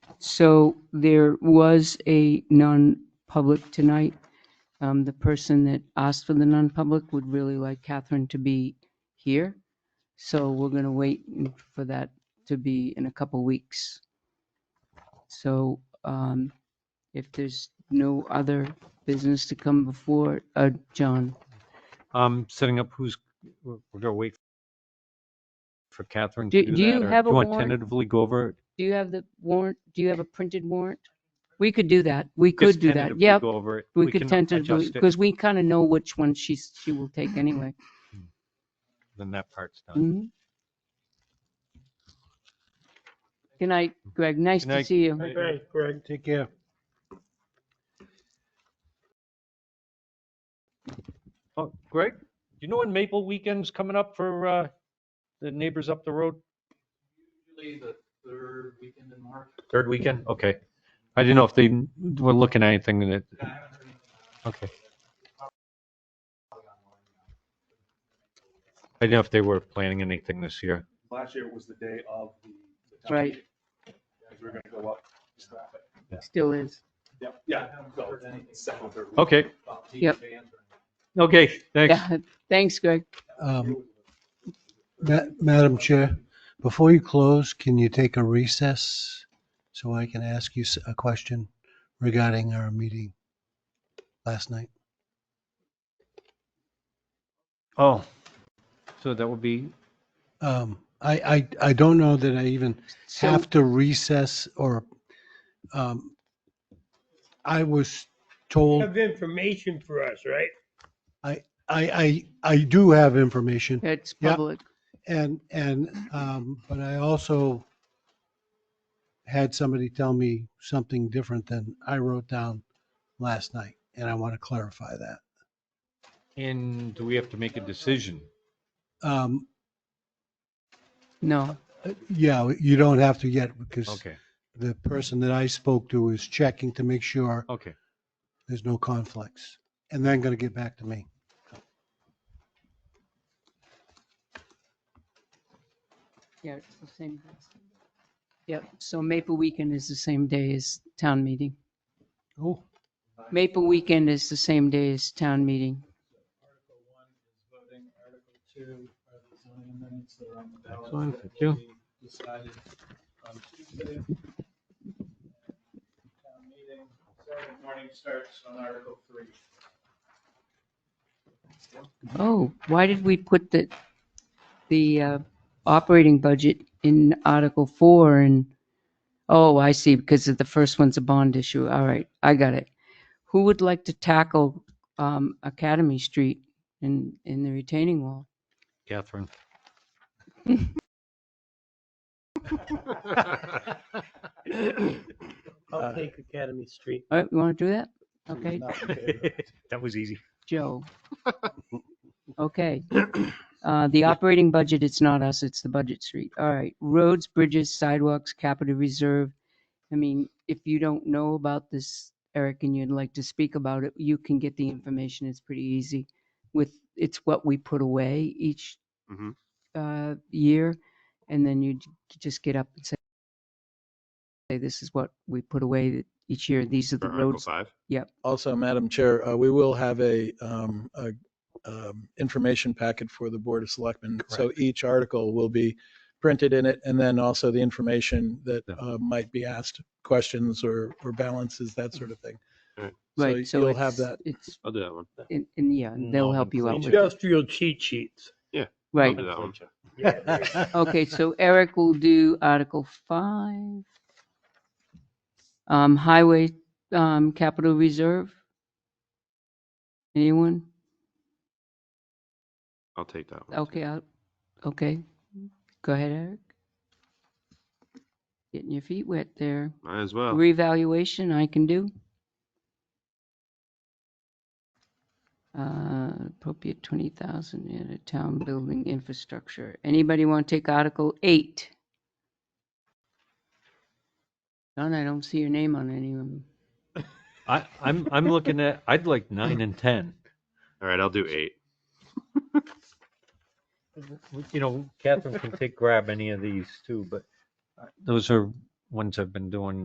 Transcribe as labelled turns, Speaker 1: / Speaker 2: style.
Speaker 1: So there was a non-public tonight. Um, The person that asked for the non-public would really like Catherine to be here. So we're going to wait for that to be in a couple weeks. So um, if there's no other business to come before, uh, John,
Speaker 2: Um, setting up who's, we're we're gonna wait for Catherine to
Speaker 1: Do-
Speaker 2: do
Speaker 1: do you
Speaker 2: that. or
Speaker 1: have a
Speaker 2: Do you want
Speaker 1: warrant?
Speaker 2: tentatively go over? it?
Speaker 1: do you have the warrant? Do you have a printed warrant? We could do that. We
Speaker 2: Just
Speaker 1: could do that.
Speaker 2: tentatively
Speaker 1: Yep.
Speaker 2: Go over it.
Speaker 1: We could
Speaker 2: can
Speaker 1: tentatively,
Speaker 2: adjust it
Speaker 1: because we kind of know which one she's, she will take anyway.
Speaker 2: Then that part's done.
Speaker 1: Mhm. Good night, Greg. Nice
Speaker 2: Good
Speaker 1: to
Speaker 2: night.
Speaker 1: see you.
Speaker 3: Okay, Greg, take care.
Speaker 2: Oh, Greg, do you know when Maple Weekend's coming up for, uh, the neighbors up the road?
Speaker 4: Usually the third weekend in March.
Speaker 2: Third weekend? Okay. I didn't know if they were looking at anything that,
Speaker 4: Yeah, I haven't heard anything.
Speaker 2: okay. I didn't know if they were planning anything this year.
Speaker 5: Last year was the day of the. the town
Speaker 1: Right.
Speaker 5: meeting, 'cause we were gonna go up. just that way.
Speaker 1: Still is.
Speaker 5: Yeah, yeah.
Speaker 4: I haven't
Speaker 5: so
Speaker 4: heard anything.
Speaker 5: second, third week.
Speaker 2: Okay,
Speaker 4: About team
Speaker 1: Yep.
Speaker 4: fans or-
Speaker 2: okay, thanks.
Speaker 1: Yeah, thanks, Greg.
Speaker 3: Um, Ma- Madam Chair, before you close, can you take a recess so I can ask you s- a question regarding our meeting last night?
Speaker 2: Oh, so that would be,
Speaker 3: Um, I, I, I don't know that I even
Speaker 1: So,
Speaker 3: have to recess or, um, I was told,
Speaker 6: have information for us, right?
Speaker 3: I, I, I do have information.
Speaker 1: it's
Speaker 3: Yeah.
Speaker 1: public.
Speaker 3: And, and, um, but I also had somebody tell me something different than I wrote down last night, and I want to clarify that.
Speaker 2: and do we have to make a decision?
Speaker 3: Um,
Speaker 1: No,
Speaker 3: yeah, you don't have to yet because
Speaker 2: Okay,
Speaker 3: the person that I spoke to is checking to make sure
Speaker 2: okay.
Speaker 3: there's no conflicts and then going to get back to me.
Speaker 1: yeah, it's the same. Yep, so Maple Weekend is the same day as town meeting.
Speaker 3: Oh,
Speaker 1: Maple Weekend is the same day as town meeting.
Speaker 4: Article one is voting, article two are the zoning amendments that are on the ballot.
Speaker 2: Excellent,
Speaker 4: that
Speaker 2: thank
Speaker 4: will
Speaker 2: you.
Speaker 4: be Decided on Tuesday. Town meeting, Saturday morning starts on article three.
Speaker 1: Oh, why did we put the, the uh, operating budget in Article 4 and, oh, I see, because of the first one's a bond issue. All right, I got it. Who would like to tackle um, Academy Street in, in the retaining wall?
Speaker 2: Catherine.
Speaker 6: I'll take Academy Street.
Speaker 1: All right, you want to do that? Okay,
Speaker 2: That was easy.
Speaker 1: Joe. Okay. Uh, The operating budget, it's not us, it's the budget street. All right. Roads, bridges, sidewalks, capital reserve. I mean, if you don't know about this, Eric, and you'd like to speak about it, you can get the information. It's pretty easy with, it's what we put away each
Speaker 5: Mhm.
Speaker 1: uh, year. And then you j- just get up and say, say, this is what we put away each year. These are the roads.
Speaker 7: Also, Madam Chair, uh, we will have a, um, a, um, information packet for the Board of Selectmen. So each article will be printed in it and then also the information that,
Speaker 2: Yeah.
Speaker 7: uh, might be asked, questions or, or balances, that sort of thing.
Speaker 1: Right. So
Speaker 7: You'll have
Speaker 1: it's-
Speaker 7: that.
Speaker 1: It's,
Speaker 5: I'll do that one. Mm.
Speaker 1: and, and yeah, they'll help you out with it.
Speaker 6: Industrial cheat sheets.
Speaker 1: Right,
Speaker 5: that one.
Speaker 1: okay, so Eric will do Article 5. Um, Highway, um, Capital Reserve. Anyone?
Speaker 5: I'll take that
Speaker 1: Okay, I'll- okay, go ahead, Eric. Getting your feet wet there.
Speaker 5: Might as well.
Speaker 1: Revaluation I can do. Uh, Appropriate 20,000 in a town building infrastructure. Anybody want to take Article 8? John, I don't see your name on any of them.
Speaker 2: I, I'm, I'm looking at, I'd like nine and 10.
Speaker 5: All right, I'll do eight.
Speaker 2: You know, Catherine can take, grab any of these too, but uh, those are ones I've been doing